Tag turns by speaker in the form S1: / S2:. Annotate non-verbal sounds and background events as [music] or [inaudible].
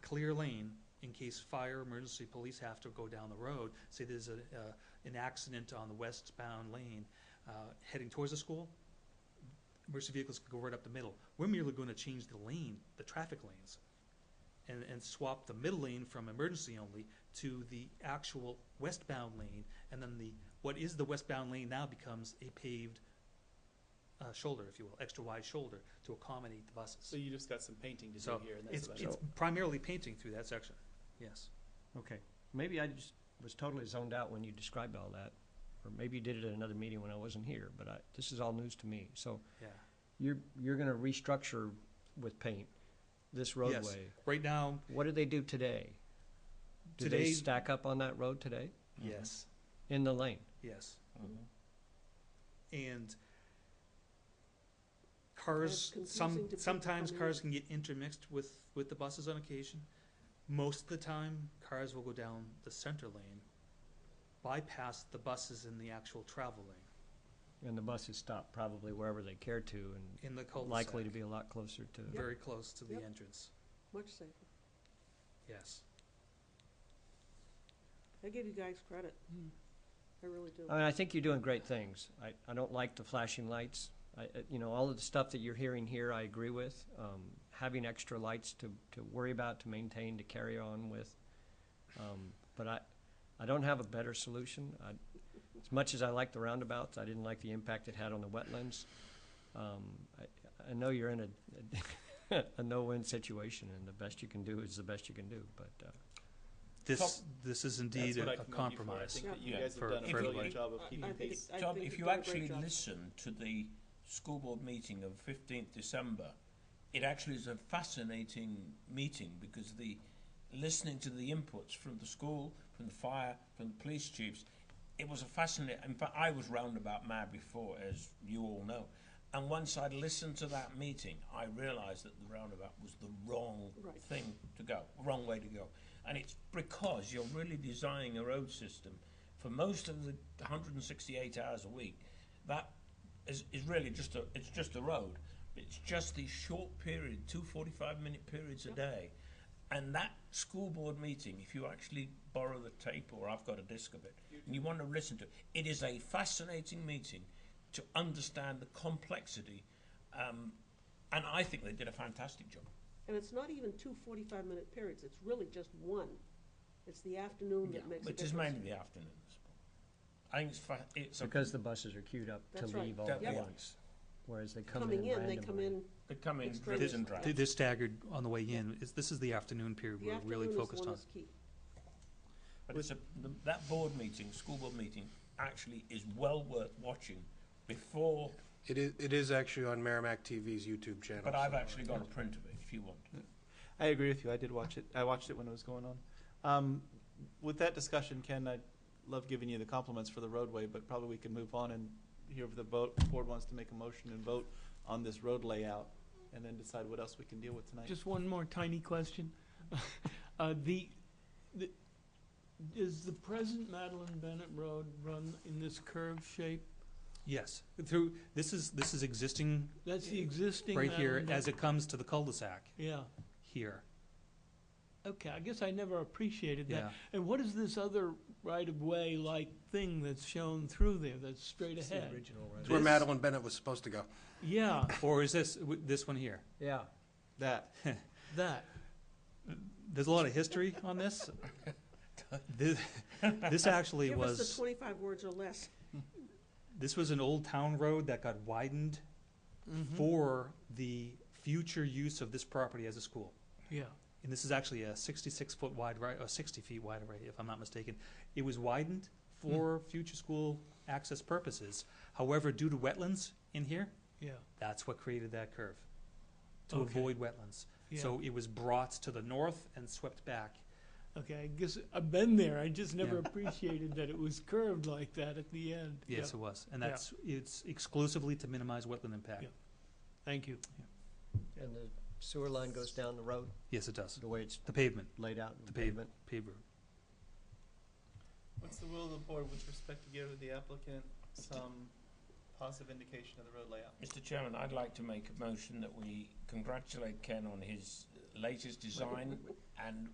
S1: clear lane in case fire, emergency, police have to go down the road. Say there's a, uh, an accident on the westbound lane, uh, heading towards the school, emergency vehicles can go right up the middle. We're merely gonna change the lane, the traffic lanes, and, and swap the middle lane from emergency only to the actual westbound lane, and then the, what is the westbound lane now becomes a paved uh, shoulder, if you will, extra wide shoulder to accommodate the buses.
S2: So you just got some painting to do
S1: So,
S2: here, and that's
S1: It's,
S2: about it.
S1: it's primarily painting through that section, yes.
S3: Okay, maybe I just was totally zoned out when you described all that, or maybe you did it at another meeting when I wasn't here, but I, this is all news to me. So
S1: Yeah.
S3: you're, you're gonna restructure with paint this roadway.
S1: Right now,
S3: What do they do today? Do they
S1: Today-
S3: stack up on that road today,
S2: Mm-hmm.
S1: yes,
S3: in the lane?
S1: yes.
S2: Mhm.
S1: And cars,
S4: confusing to
S1: some,
S4: people
S1: sometimes
S4: coming
S1: cars can get intermixed with, with the buses on occasion. Most of the time, cars will go down the center lane, bypass the buses in the actual travel lane,
S3: And the buses stop probably wherever they care to
S1: in the
S3: and
S1: cul-de-sac.
S3: likely to be a lot closer to.
S1: Very close to the
S4: Yep.
S1: entrance,
S4: Much safer.
S1: yes.
S4: I give you guys credit.
S5: Hmm.
S4: I really do.
S2: Uh,
S3: I mean, I think you're doing great things. I, I don't like the flashing lights. I, I- you know, all of the stuff that you're hearing here, I agree with. Um, having extra lights to, to worry about, to maintain, to carry on with. Um, but I, I don't have a better solution. I, as much as I like the roundabouts, I didn't like the impact it had on the wetlands. Um, I, I know you're in a, [laughs] a no-win situation, and the best you can do is the best you can do, but, uh,
S1: This, this is
S2: That's
S1: indeed
S2: what
S1: a
S2: I
S1: a
S2: commend you for. I
S1: compromise.
S2: think that you
S5: Yeah.
S2: guys
S1: For-
S2: have done a
S5: for
S2: brilliant
S5: everybody.
S2: job of
S4: I- I
S2: keeping
S4: think
S2: pace.
S4: it's- I
S5: Tom,
S4: think
S5: if
S4: you've
S5: you
S4: done a great
S5: actually
S4: job.
S5: listen to the school board meeting of 15th December, it actually is a fascinating meeting because the listening to the inputs from the school, from the fire, from the police chiefs, it was a fascinating. In fact, I was roundabout mad before, as you all know. And once I'd listened to that meeting, I realised that the roundabout was the wrong
S4: Right.
S5: thing to go, wrong way to go. And it's because you're really designing a road system for most of the 168 hours a week. That is, is really just a it's just a road. It's just these short period, two 45 minute periods a day. And that school board meeting, if you actually borrow the tape or I've got a disc of it, and you want to listen to it, it is a fascinating meeting to understand the complexity. Um, and I think they did a fantastic job.
S4: And it's not even two 45-minute periods. It's really just one. It's the afternoon that makes a
S5: Which is
S4: difference.
S5: mainly the afternoons. I think it's, fa- it's a,
S3: because the buses are queued up to
S4: That's right.
S3: leave all
S5: Yep.
S3: at
S5: Yeah.
S3: once. Whereas they come in
S4: Coming
S3: randomly.
S4: in, they come in,
S5: they come in
S4: It's
S5: dribs
S4: great.
S5: and drabs.
S1: Th- They're staggered on the way in, Is- this is the afternoon period
S4: the
S1: we're really
S4: afternoon is
S1: focused
S4: one
S1: on.
S4: is key.
S5: But it's a, the, that board meeting, school board meeting, actually is well worth watching before.
S6: It is, it is actually on Merrimack TV's YouTube channel.
S5: But I've
S6: so-
S5: actually got a print of it if you want.
S2: I agree with you. I did watch it. I watched it when it was going on. Um, with that discussion, Ken, I love giving you the compliments for the roadway, but probably we can move on and hear if the vote, board wants to make a motion and vote on this road layout, and then decide what else we can deal with tonight.
S7: Just one more tiny question. [laughs] Uh, the, the, does the present Madeline Bennett Road run in this curved shape?
S1: Yes, through, this is, this is existing
S7: That's the existing
S1: right here
S7: Madeline
S1: as
S7: Bennett-
S1: it comes to the cul-de-sac
S7: Yeah,
S1: here,
S7: okay, I guess I never appreciated
S1: yeah.
S7: that. And what is this other right-of-way like thing that's shown through there that's straight
S3: It's the
S7: ahead?
S3: original road.
S6: It's where
S7: This-
S6: Madeline Bennett was supposed to go.
S7: Yeah,
S1: [laughs] Or is this, w- this one here?
S3: Yeah,
S2: That.
S7: that,
S1: There's a lot of history on this.
S5: [laughs]
S1: This, this actually
S4: Give us the
S1: was,
S4: 25 words or less.
S1: this was an old town road that got widened
S7: Mm-hmm.
S1: for the future use of this property as a school.
S7: yeah,
S1: and this is actually a 66 foot wide right or 60 feet wide array if i'm not mistaken it was widened for
S7: Mm.
S1: future school access purposes however due to wetlands in here
S7: yeah,
S1: that's what created that curve to
S7: Okay.
S1: avoid wetlands
S7: yeah.
S1: so it was brought to the north and swept back
S7: Okay, I guess I've been there, I just never
S1: Yeah.
S7: appreciated that it was curved like that at the end. Yeah,
S1: yes it was and
S7: Yeah.
S1: that's it's exclusively to minimize wetland impact
S7: Yeah. Thank you.
S3: and the sewer line goes down the road,
S1: yes it does
S3: the way it's
S1: the pavement
S3: laid out in
S1: The
S3: the
S1: pave-
S3: pavement.
S1: paved road
S2: What's the will of the board with respect to give the applicant some positive indication of the road layout?
S5: Mr. Chairman, I'd like to make a motion that we congratulate Ken on his latest design and